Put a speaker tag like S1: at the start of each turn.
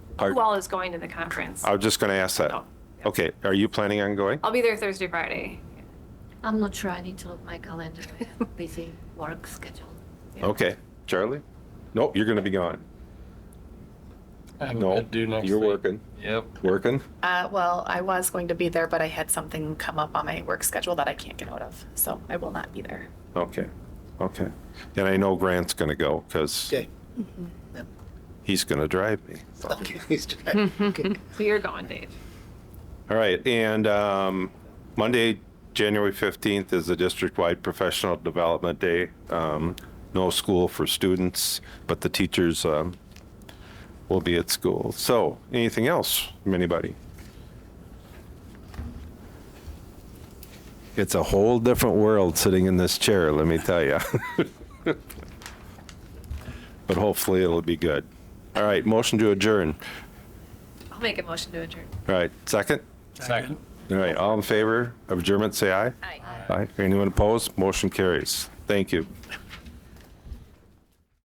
S1: Are-
S2: Who all is going to the conference?
S1: I was just going to ask that.
S2: No.
S1: Okay, are you planning on going?
S2: I'll be there Thursday, Friday.
S3: I'm not sure. I need to look my calendar. I have busy work schedule.
S1: Okay, Charlie? Nope, you're going to be gone.
S4: I have
S1: No,
S4: a bit due next
S1: you're
S4: week.
S1: working,
S4: Yep.
S1: working.
S5: Uh, well, I was going to be there, but I had something come up on my work schedule that I can't get out of, so I will not be there.
S1: Okay, okay. And I know Grant's going to go because
S6: Okay.
S1: he's going to drive me.
S6: Okay. he's done. Okay.
S2: So you're going, Dave.
S1: All right, and um, Monday, January 15th is the district-wide professional development day. Um, No school for students, but the teachers um, will be at school. So anything else from anybody? It's a whole different world sitting in this chair, let me tell you. But hopefully it'll be good. All right, motion to adjourn.
S2: I'll make a motion to adjourn.
S1: All right, second?
S4: Second.
S1: All right, all in favor of adjournment, say aye.
S2: Aye.
S1: Aye. Anyone opposed? Motion carries. Thank you.